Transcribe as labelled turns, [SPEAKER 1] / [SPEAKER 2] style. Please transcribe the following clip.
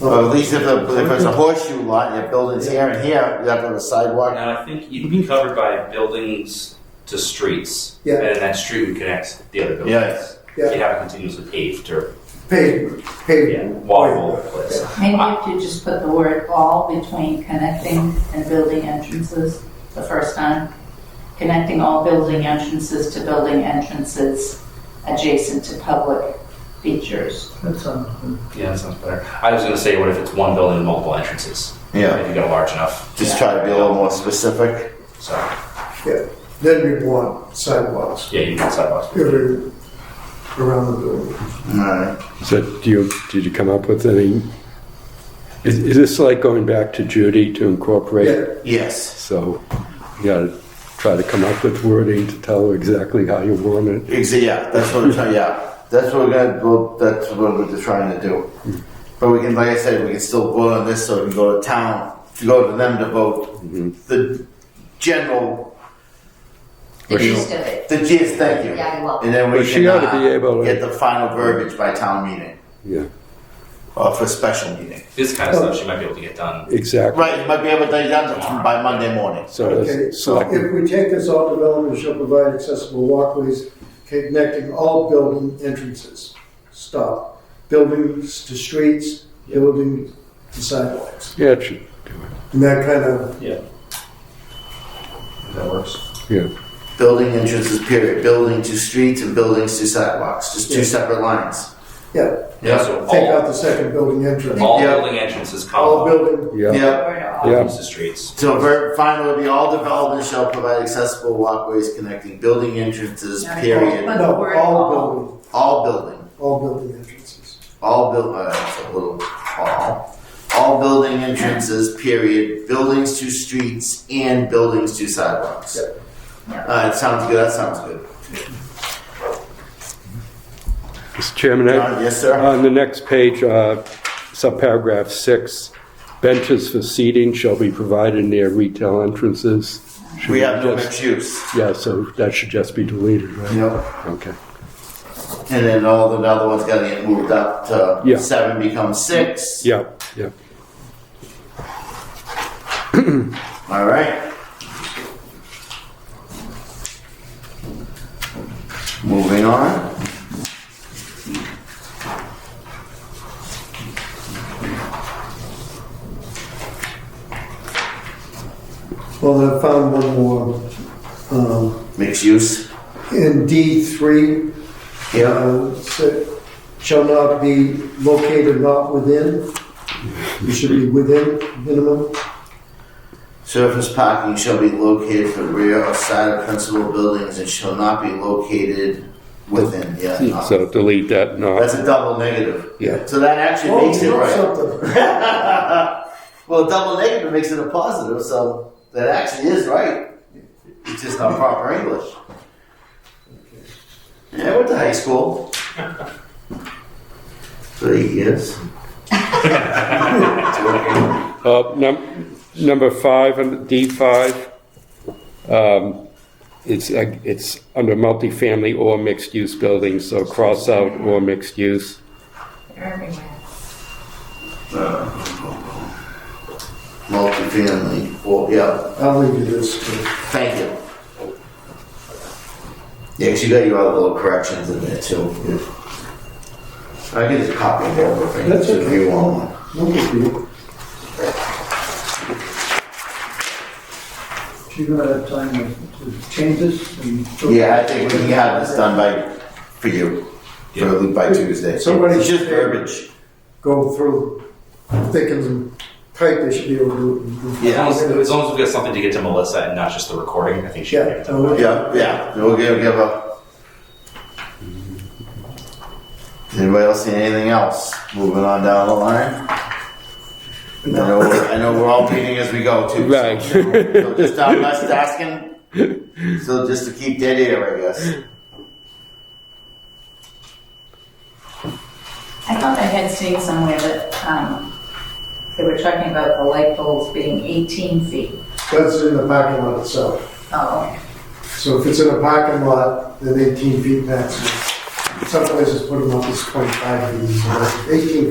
[SPEAKER 1] Well, at least if, the, if it's a horseshoe lot, your building's here and here, you have to have a sidewalk.
[SPEAKER 2] Now, I think you can be covered by buildings to streets.
[SPEAKER 3] Yeah.
[SPEAKER 2] And then that street would connect the other buildings.
[SPEAKER 1] Yes.
[SPEAKER 2] If you have it continuously paved or
[SPEAKER 3] Pavement, pavement.
[SPEAKER 2] walkable place.
[SPEAKER 4] Maybe if you just put the word all between connecting and building entrances the first time. Connecting all building entrances to building entrances adjacent to public features.
[SPEAKER 5] That's on.
[SPEAKER 2] Yeah, that sounds better. I was gonna say, what if it's one building with multiple entrances?
[SPEAKER 1] Yeah.
[SPEAKER 2] If you got large enough,
[SPEAKER 1] Just try to be a little more specific.
[SPEAKER 2] so,
[SPEAKER 3] Then we want sidewalks
[SPEAKER 2] yeah, you need sidewalks.
[SPEAKER 3] every, around the building.
[SPEAKER 1] Alright.
[SPEAKER 6] So do you, did you come up with any, is, is this like going back to Judy to
[SPEAKER 3] Yeah,
[SPEAKER 6] incorporate?
[SPEAKER 1] Yes.
[SPEAKER 6] So you gotta try to come up with wording to tell exactly how you want it.
[SPEAKER 1] Ex- yeah, that's what we're trying, yeah. That's what we're gonna, well, that's what we're just trying to do. But we can, like I said, we can still vote on this, so we can go to town, to go to them to vote.
[SPEAKER 6] Mm-hmm.
[SPEAKER 1] The general,
[SPEAKER 7] The
[SPEAKER 1] Or she-
[SPEAKER 7] gist of it.
[SPEAKER 1] the gist, thank you.
[SPEAKER 7] Yeah, you're welcome.
[SPEAKER 1] And then we
[SPEAKER 6] But
[SPEAKER 1] can
[SPEAKER 6] she ought to
[SPEAKER 1] uh,
[SPEAKER 6] be able to-
[SPEAKER 1] get the final verbiage by town meeting,
[SPEAKER 6] Yeah,
[SPEAKER 1] or for special meeting.
[SPEAKER 2] This kind of stuff she might be able to get done.
[SPEAKER 6] exactly.
[SPEAKER 1] Right, you might be able to get done by Monday morning.
[SPEAKER 6] So
[SPEAKER 3] Okay,
[SPEAKER 6] it's
[SPEAKER 3] so
[SPEAKER 6] select,
[SPEAKER 3] if we take this, all development shall provide accessible walkways connecting all building entrances. Stop. Buildings to streets, building to sidewalks.
[SPEAKER 6] yeah, it should,
[SPEAKER 3] And that kind of,
[SPEAKER 2] If that works.
[SPEAKER 6] yeah.
[SPEAKER 1] Building entrances, period. Building to streets and buildings to sidewalks. Just two
[SPEAKER 3] Yeah.
[SPEAKER 1] separate lines.
[SPEAKER 3] yeah,
[SPEAKER 2] Yeah, so
[SPEAKER 3] take out
[SPEAKER 2] all,
[SPEAKER 3] the second building entrance.
[SPEAKER 2] all
[SPEAKER 1] Yeah.
[SPEAKER 2] building entrances
[SPEAKER 3] All
[SPEAKER 2] come up,
[SPEAKER 3] building,
[SPEAKER 6] Yeah,
[SPEAKER 1] Yep.
[SPEAKER 4] Or to all
[SPEAKER 6] Yeah.
[SPEAKER 2] use the streets.
[SPEAKER 1] So ver- final would be all developments shall provide accessible walkways connecting building entrances,
[SPEAKER 4] Yeah.
[SPEAKER 1] period.
[SPEAKER 4] But the
[SPEAKER 3] no,
[SPEAKER 4] word
[SPEAKER 3] all
[SPEAKER 4] all.
[SPEAKER 3] building,
[SPEAKER 1] All building,
[SPEAKER 3] all building entrances.
[SPEAKER 1] all build, uh, that's a little all. All building entrances, period. Buildings to streets and buildings to sidewalks.
[SPEAKER 4] Yeah.
[SPEAKER 1] Uh, it sounds good. That sounds good.
[SPEAKER 6] Mr. Chairman, I-
[SPEAKER 1] John, Uh, yes, sir.
[SPEAKER 6] on the next page, uh, subparagraph six, benches for seating shall be provided near retail entrances. Should
[SPEAKER 1] we have no
[SPEAKER 6] just-
[SPEAKER 1] mixed use.
[SPEAKER 6] Yeah, so that should just be deleted, right?
[SPEAKER 1] Yep.
[SPEAKER 6] Okay.
[SPEAKER 1] And then all the other ones got to get moved up to
[SPEAKER 6] Yeah.
[SPEAKER 1] seven becomes six.
[SPEAKER 6] Yeah, yeah.
[SPEAKER 1] All right. Moving on.
[SPEAKER 3] Well, I found one more, um,
[SPEAKER 1] Mixed use.
[SPEAKER 3] in D three, uh, sa- shall not be located not within. It should be within minimum.
[SPEAKER 1] Surface parking shall be located to the rear or side of principal buildings and shall not be located within. Yeah. no.
[SPEAKER 6] Hmm, So delete that, no.
[SPEAKER 1] That's a double negative.
[SPEAKER 6] Yeah.
[SPEAKER 1] So that actually
[SPEAKER 3] Oh,
[SPEAKER 1] makes it
[SPEAKER 3] you wrote
[SPEAKER 1] right.
[SPEAKER 3] something.
[SPEAKER 1] well, double negative makes it a positive, so that actually is right. It's just not proper English. Yeah, I went to high school. Three years.
[SPEAKER 6] Uh, num- Number five, under D5, um, it's, uh, it's under multifamily or mixed-use buildings, so cross out or mixed-use.
[SPEAKER 7] They're everywhere.
[SPEAKER 1] Multifamily. Well, yeah.
[SPEAKER 3] I'll leave you this. but-
[SPEAKER 1] Thank you. Yeah, 'cause you got your other little corrections in there too. I can just copy it over for you
[SPEAKER 3] That's
[SPEAKER 1] if
[SPEAKER 3] okay.
[SPEAKER 1] you want one.
[SPEAKER 3] No big deal.
[SPEAKER 5] She's gonna have time to to change this and.
[SPEAKER 1] Yeah, I think we can have this done by, for you, for
[SPEAKER 2] Yeah.
[SPEAKER 1] Luke by Tuesday.
[SPEAKER 3] Somebody-
[SPEAKER 1] It's just verbiage.
[SPEAKER 3] Go through, thick and tight, they should be able to do it.
[SPEAKER 2] As long as, as long as we've got something to get to Melissa and not just the recording, I think she can get
[SPEAKER 3] Yeah,
[SPEAKER 2] it done.
[SPEAKER 5] Oh,
[SPEAKER 3] no,
[SPEAKER 1] Yeah, yeah, we'll give, give a. Anybody else see anything else? Moving on down the line. I know, we're- I know we're all meeting as we go too. so-
[SPEAKER 6] Right.
[SPEAKER 1] So just stop us asking, so just to keep dead air, I guess.
[SPEAKER 4] I thought I had seen somewhere that, um, they were talking about the light poles being 18 feet.
[SPEAKER 3] that's in the parking lot itself.
[SPEAKER 4] Oh,
[SPEAKER 3] So if it's in a parking lot, then eighteen feet maximum. Some places put them up as twenty-five feet, so that's eighteen